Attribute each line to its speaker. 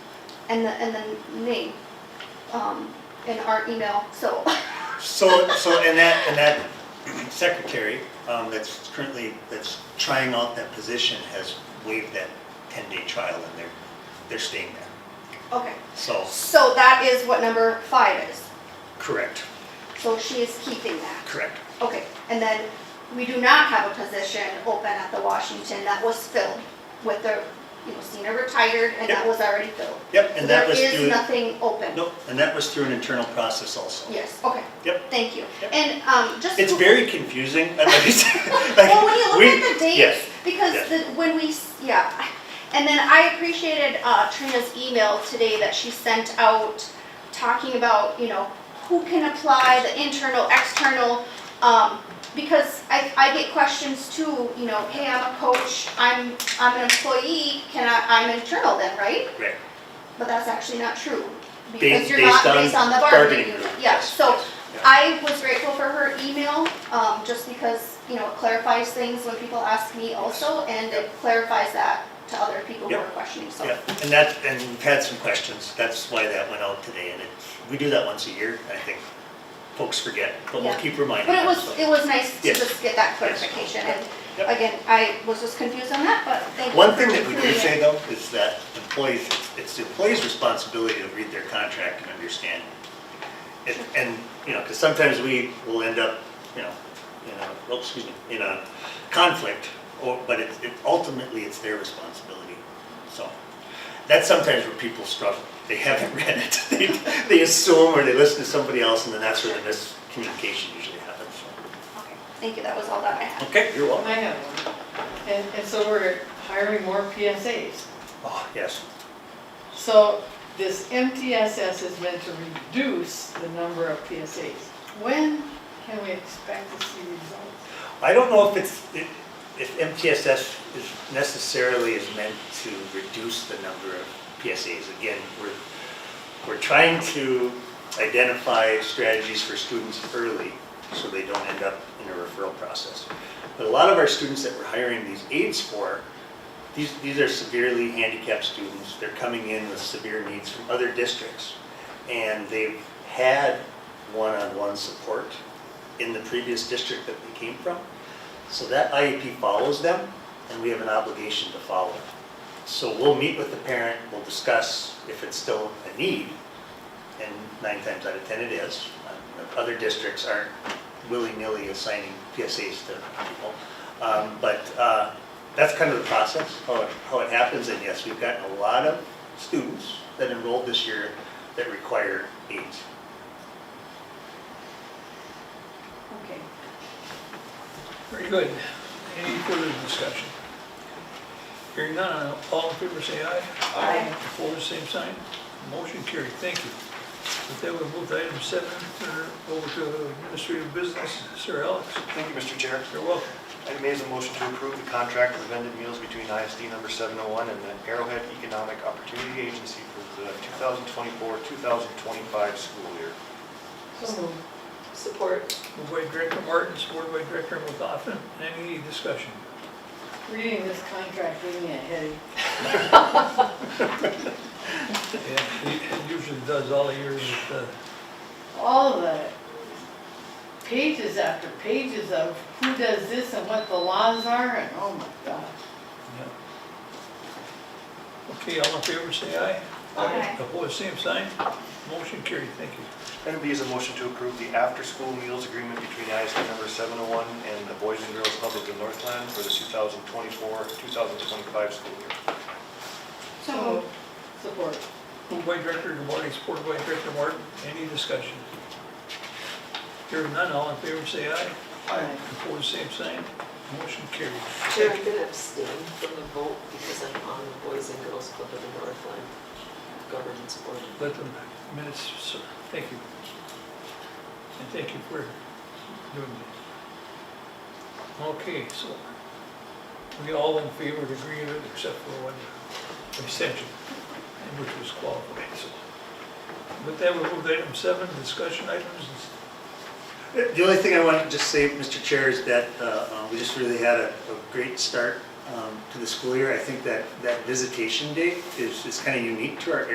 Speaker 1: and the, and the name, um, and our email, so,
Speaker 2: So, so, and that, and that secretary um, that's currently, that's trying out that position has waived that 10-day trial and they're, they're staying there.
Speaker 1: okay.
Speaker 2: So,
Speaker 1: So that is what number five is,
Speaker 2: correct,
Speaker 1: so she is keeping that,
Speaker 2: correct.
Speaker 1: okay. And then, we do not have a position open at the Washington that was filled with the, you know, senior retired, and that
Speaker 2: Yep.
Speaker 1: was already filled.
Speaker 2: Yep, and that was
Speaker 1: There is
Speaker 2: through,
Speaker 1: nothing open.
Speaker 2: nope, and that was through an internal process also.
Speaker 1: Yes, okay.
Speaker 2: Yep.
Speaker 1: Thank you.
Speaker 2: Yep.
Speaker 1: And, um, just.
Speaker 2: It's
Speaker 1: to-
Speaker 2: very confusing. I'd like to say-
Speaker 1: Well, when you
Speaker 2: we-
Speaker 1: look at the dates,
Speaker 2: yes.
Speaker 1: because
Speaker 2: yes.
Speaker 1: the, when we, s- yeah, and then I appreciated uh, Trina's email today that she sent out, talking about, you know, who can apply, the internal, external, um, because I, I get questions too, you know, hey, I'm a coach, I'm, I'm an employee, can I, I'm internal then, right?
Speaker 2: Right.
Speaker 1: But that's actually not true, because
Speaker 2: Based-
Speaker 1: you're not
Speaker 2: based on
Speaker 1: based on the
Speaker 2: bargaining
Speaker 1: bargaining unit,
Speaker 2: group,
Speaker 1: yeah,
Speaker 2: yes,
Speaker 1: so
Speaker 2: yes, yeah.
Speaker 1: I was grateful for her email, um, just because, you know, it clarifies things when people ask me also, and it clarifies that to other people who
Speaker 2: Yep.
Speaker 1: are questioning, so.
Speaker 2: Yeah, and that, and we've had some questions, that's why that went out today, and it's, we do that once a year, I think folks forget, but we'll
Speaker 1: Yeah.
Speaker 2: keep reminding
Speaker 1: But it
Speaker 2: them.
Speaker 1: was,
Speaker 2: so.
Speaker 1: it was nice to
Speaker 2: Yes.
Speaker 1: just get that
Speaker 2: Yes.
Speaker 1: clarification, and
Speaker 2: Yep.
Speaker 1: again, I was just confused on that, but thank you.
Speaker 2: One
Speaker 1: for
Speaker 2: thing that we do
Speaker 1: including it.
Speaker 2: say though, is that employees, it's- it's the employee's responsibility to read their contract and understand. it. And- And, you know, because sometimes we will end up, you know, in a, oh, excuse me, in a conflict, or, but it's, it, ultimately, it's their responsibility, so. That's sometimes where people struggle, they haven't read it, they, they assume or they listen to somebody else, and then that's where the miscommunication usually happens, so.
Speaker 1: Okay, Thank you, that was all that I had.
Speaker 2: Okay, you're welcome.
Speaker 3: I have one. And, and so we're hiring more PSAs.
Speaker 2: Oh, yes,
Speaker 3: So this MTSS is meant to reduce the number of PSAs. When can we expect to see results?
Speaker 2: I don't know if it's, if MTSS is necessarily is meant to reduce the number of PSAs. Again, we're, we're trying to identify strategies for students early so they don't end up in a referral process. But a lot of our students that we're hiring these aides for, these, these are severely handicapped students. They're coming in with severe needs from other districts. And they've had one-on-one support in the previous district that they came from. So that IEP follows them, and we have an obligation to follow it. So we'll meet with the parent, we'll discuss if it's still a need, and nine times out of 10 it is. Uh, Other districts aren't willy-nilly assigning PSAs to people. Um, But uh, that's kind of the process, how it, how it happens, and yes, we've gotten a lot of students that enrolled this year that require aids.
Speaker 3: Okay.
Speaker 4: Very good. Any further discussion? Hearing none, all in favor say aye.
Speaker 3: Aye.
Speaker 4: Opposed, same sign. Motion carried, thank you. With that, we'll move to item seven, turn it over to administrative business. Sir Alex,
Speaker 5: Thank you, Mr. Chair.
Speaker 4: you're welcome.
Speaker 5: I made a motion to approve the contract for vended meals between ISD number 701 and the Arrowhead Economic Opportunity Agency for the 2024-2025 school year.
Speaker 3: So moved. Support.
Speaker 4: Moved by Director Martin, supported by Director McGlaughlin. Any discussion?
Speaker 3: Reading this contract, giving me a headache.
Speaker 4: Yeah, It usually does all the years with, uh,
Speaker 3: all the pages after pages of who does this and what the laws are, and oh my God.
Speaker 4: uh, yeah. Okay, all in favor say aye.
Speaker 1: Aye.
Speaker 4: Opposed, same sign. Motion carried, thank you.
Speaker 5: Item B is a motion to approve the after-school meals agreement between ISD number 701 and the Boys and Girls Club of the Northland for the 2024-2025 school year.
Speaker 1: So,
Speaker 3: Support.
Speaker 4: Moved by Director DeWarke, supported by Director Martin. Any discussion? Hearing none, all in favor say aye.
Speaker 3: Aye.
Speaker 4: Opposed, same sign. Motion carried.
Speaker 6: Chair, I'm gonna abstain from the vote because I'm on the Boys and Girls Club of the Northland Governance Board.
Speaker 4: Let the minutes, sir. Thank you. And thank you for doing this. Okay, so we all in favor to agree with it except for one abstention, and which was qualified, so. With that, we'll move to item seven, discussion items.
Speaker 2: The only thing I want to just say, Mr. Chair, is that uh, uh, we just really had a a great start um, to the school year. I think that, that visitation day is, is kind of unique to our